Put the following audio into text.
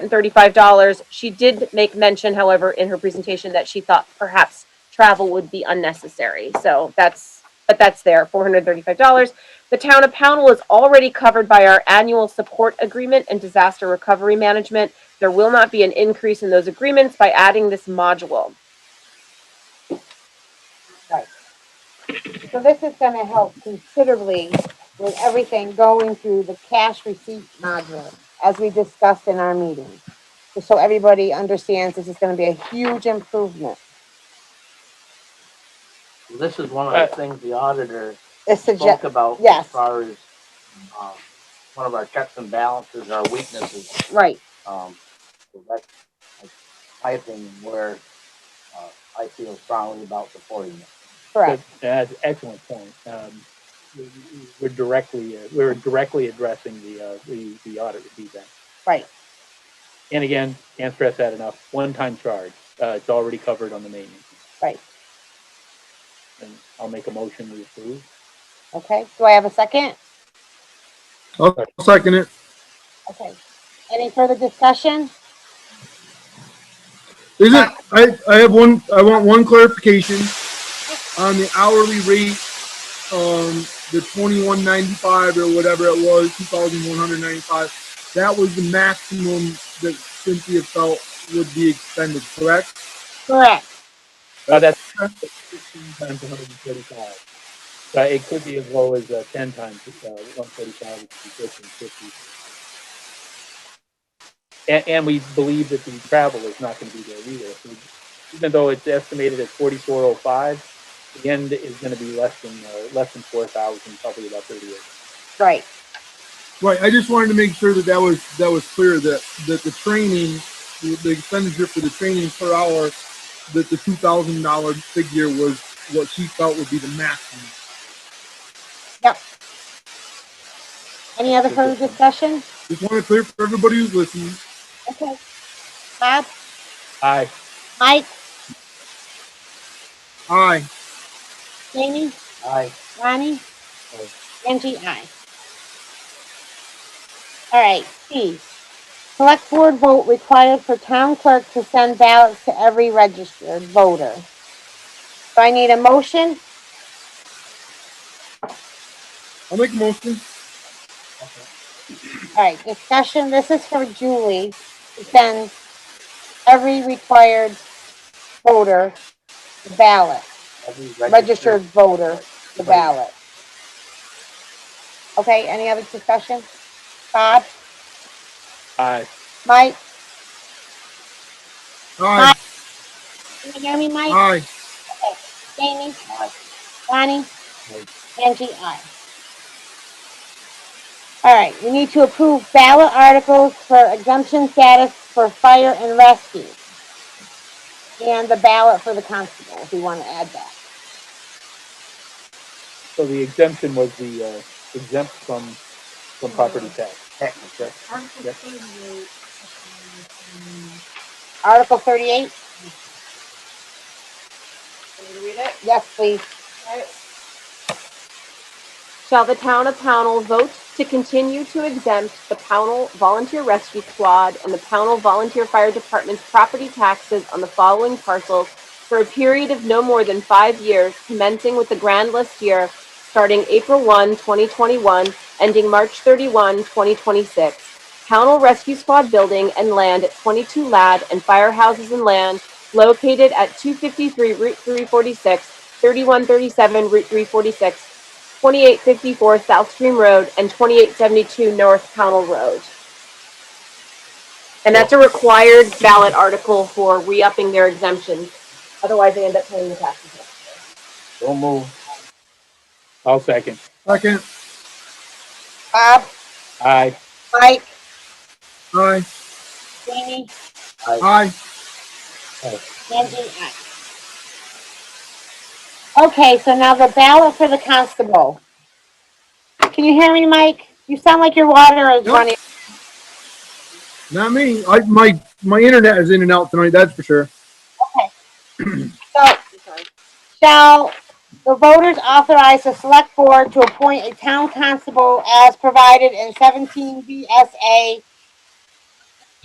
and thirty-five dollars. She did make mention, however, in her presentation that she thought perhaps travel would be unnecessary. So that's, but that's there, four hundred thirty-five dollars. The town of Pownell is already covered by our annual support agreement and disaster recovery management. There will not be an increase in those agreements by adding this module. So this is gonna help considerably with everything going through the cash receipt module, as we discussed in our meeting. Just So everybody understands this is gonna be a huge improvement. This is one of the things the auditor This spoke suggests, about as yes. far as, um, one of our checks and balances, our weaknesses, right, um, so that's like, my opinion, where, uh, I feel strongly about supporting it. correct, That's an excellent point. Um, we- we- we're directly, uh, we're directly addressing the, uh, the, the audit review then. right, And again, can't stress that enough, one-time charge, uh, it's already covered on the maintenance. Right. And I'll make a motion to approve. okay, do I have a second? I'll Oh, second it. Okay, any further discussion? Is it, I, I have one, I want one clarification on the hourly rate, um, the twenty-one ninety-five or whatever it was, two thousand one hundred ninety-five. That was the maximum that Cynthia felt would be expended, correct? Correct, Uh, that's fifteen times one hundred and thirty-five. So it could be as low as, uh, ten times, uh, one thirty-five, which would be fifteen fifty. And, and we believe that the travel is not gonna be there either. So Even though it's estimated at forty-four oh five, the end is gonna be less than, uh, less than four thousand, probably about thirty-eight. right, Right, I just wanted to make sure that that was, that was clear, that, that the training, the the expenditure for the training per hour, that the two thousand dollar figure was what she felt would be the maximum. any other further discussion? Just want to clear for everybody who's listening. Okay. Bob, Aye, Mike, Aye. Jamie, I, Ronnie, Aye. Angie, aye. All right, C, select board vote required for town clerk to send ballots to every registered voter. So I need a motion, I'll make a motion. all right, discussion, this is for Julie, to send every required voter the ballot, every registered registered, voter the Right. ballot. Okay, any other discussion? Bob, aye. Mike, Aye. can you hear me, Mike? Aye. Jamie? Aye. Bonnie? Aye. Angie, aye. All right, we need to approve ballot articles for exemption status for fire and rescue. And the ballot for the constable, if you want to add that. So the exemption was the, uh, exempt from, from property tax. technically. Yep. Article thirty-eight, yes, please. Shall the town of Pownell vote to continue to exempt the Pownell Volunteer Rescue Squad and the Pownell Volunteer Fire Department's property taxes on the following parcels for a period of no more than five years, commencing with the grand list year, starting April 1, 2021, ending March 31, 2026. Pownell Rescue Squad building and land at 22 Lad and firehouses and land located at 253 Route 346, 3137 Route 346, 2854 South Stream Road and 2872 North Pownell Road. And that's a required ballot article for re-upping their exemption. Otherwise, they end up paying the taxes. Don't move. I'll second. Second. Bob, Aye, Mike, Aye. Jamie, Aye. Angie, aye. Okay, so now the ballot for the constable. Can you hear me, Mike? You sound like your water is Nope. running. Not me. I, my, my internet is in and out tonight, that's for sure. So, shall the voters authorize the select board to appoint a town constable as provided in seventeen VSA